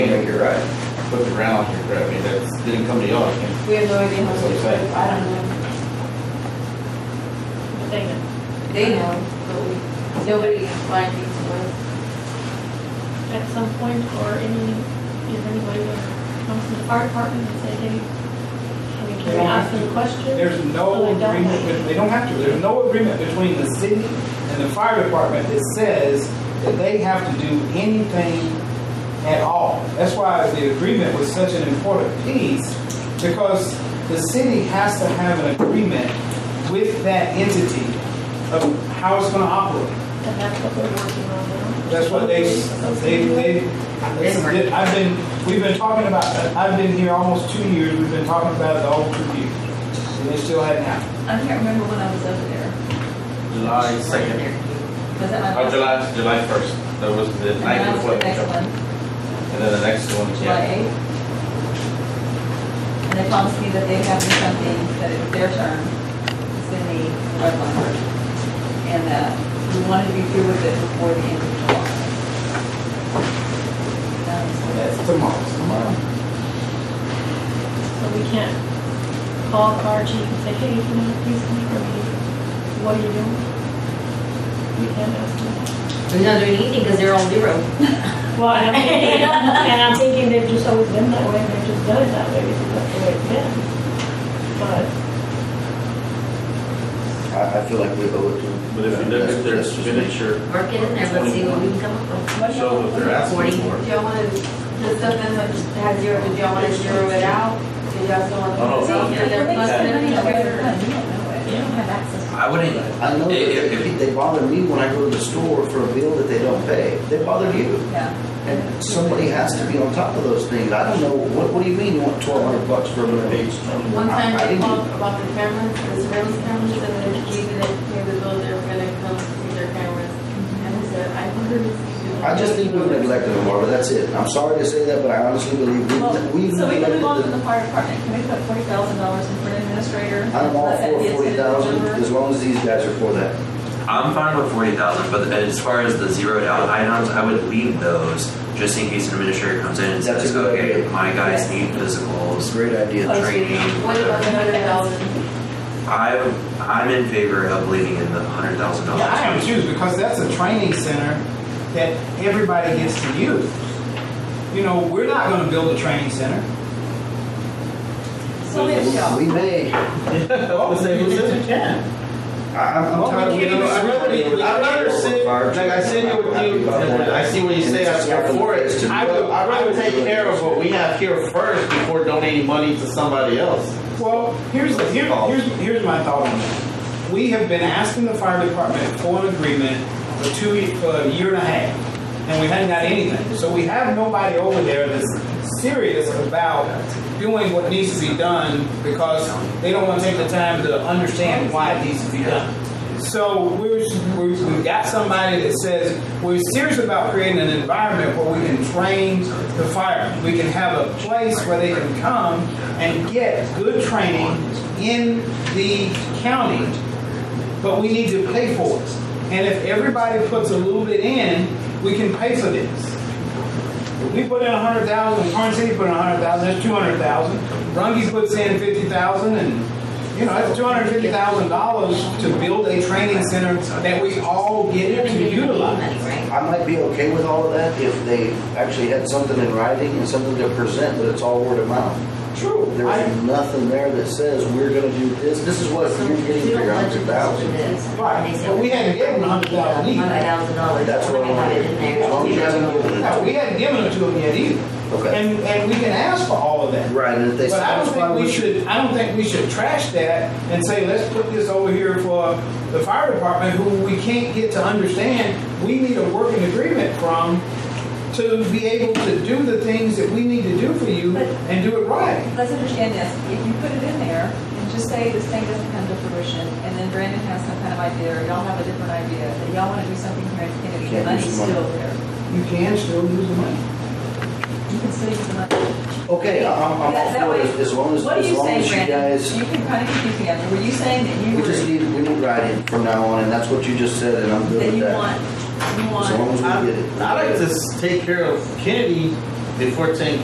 Right. Put the ground here, right, I mean, that's, didn't come to y'all, I think. We have no idea how to do Okay. it, I don't know. They know. They know, but we, nobody applied these ones. at some point, or any, if anybody that comes from the fire department and say, hey, I mean, can we ask them questions? There's So no they don't agreement, have- with- they don't have to, there's no agreement between the city and the fire department that says that they have to do anything at all. That's why the agreement was such an important piece, because the city has to have an agreement with that entity of how it's gonna operate. And that's what they're working on now. That's what they, they, they, they- I've been, we've been talking about, I've been here almost two years, we've been talking about it the whole two years. And it still hadn't happened. I can't remember when I was over there. July second, Was that my? oh, July, July first, that was the And night then was before. the the next jump. one, And then the next one, July yeah. eighth. And they promised me that they had me something, that it was their turn, it's in the red line. And that we wanted to be through with it before the end of July. That was what it That's tomorrow. Tomorrow. So we can't call the fire chief and say, hey, can you please come here, what are you doing? We can't ask them. They're not doing anything because they're on zero. Well, and I'm thinking, and I'm thinking they've just always been that way, and they've just done it that way, because that's the way it's been. But I, I feel like we owe it to them. But if you look at their That's just me. signature, Work it in there, let's see what we can come up with. show what they're asking for. Do y'all wanna, the stuff that's like, has zero, do y'all wanna zero it out? Do y'all still want? I Oh, don't know. to- was. They're plus They and said, "No, no, they're- no, you don't know it. You don't have access to it." I wouldn't. I know, that If- they, they bother me when I go to the store for a bill that they don't pay. They bother you. Yeah. And somebody has to be on top of those things. I don't know, what, what do you mean you want twelve hundred bucks for a little page? One time I- I they didn't- called about the cameras, the surveillance cameras, and they needed it, they were told they were gonna come see their cameras. And I said, I wonder if you do. I just think we've neglected them, Barbara, that's it. I'm sorry to say that, but I honestly believe Well, we've, we've So we can move on to neglected the them. fire department, can we put forty thousand dollars in for an administrator? I'm all Let that be for a forty thousand, number. as long as these guys are for that. I'm fine with forty thousand, but as far as the zeroed out items, I would leave those just in case an administrator comes in and That's says, a good okay, idea. my Yes. guys need It's a physicals, great idea. training, What about whatever. the hundred thousand? I'm, I'm in favor of leaving in the hundred thousand dollars. Yeah, I am too, because that's a training center that everybody gets to use. You know, we're not gonna build a training center. So we have We may, I, I'm I'm tired of. You know, I'd rather, I'd rather sit, like I sit here with you, and I see what you say, I am for it. I would, I'd rather take care of what we have here first before donating money to somebody else. Well, here's, the- here, here's, here's my thought on that. We have been asking the fire department for an agreement for two, ye- for a year and a half, and we haven't got anything. So we have nobody over there that's serious about doing what needs to be done because they don't want to take the time to understand why it needs to be done. So we're, we're, we've got somebody that says we're serious about creating an environment where we can train the firemen. We can have a place where they can come and get good training in the county, but we need to pay for it. And if everybody puts a little bit in, we can pay for this. If we put in a hundred thousand, Torrance City put in a hundred thousand, that's two hundred thousand. Rungy puts in fifty thousand and, you know, that's two hundred fifty thousand dollars to build a training center that we all get to utilize. I might be okay with all of that if they actually had something in writing and something to present, but it's all word of mouth. Trure. I- There's nothing there that says we're gonna do this, this is what you're getting for your hundred thousand. Right, but we hadn't given them $100,000 either. Hundred thousand dollars. That's what I'm- Have it in there. as long as you haven't given No, it. we hadn't given it to them yet either. Okay. And, and we can ask for all of that. Right, and if they But I don't satisfy think we what you, should, I don't think we should trash that and say, let's put this over here for the fire department, who we can't get to understand. We need a working agreement from to be able to do the things that we need to do for you and do it right. Let's understand this, if you put it in there and just say this thing doesn't come to fruition, and then Brandon has some kind of idea, or y'all have a different idea, that y'all wanna do something here in Kennedy, Can't the do money's some money. still there. You can still use the money. You can still use the money. okay, I'm, I'm That- that all for way- it, as long as, What do as you long say, as you Brandon? guys, You can kinda confuse me, after. were you saying that you we were, just that need, we need writing from now on, and that's what you just said, and I'm good with you that. want, you want? Um, As long as we get it. I like to s- take care of Kennedy before taking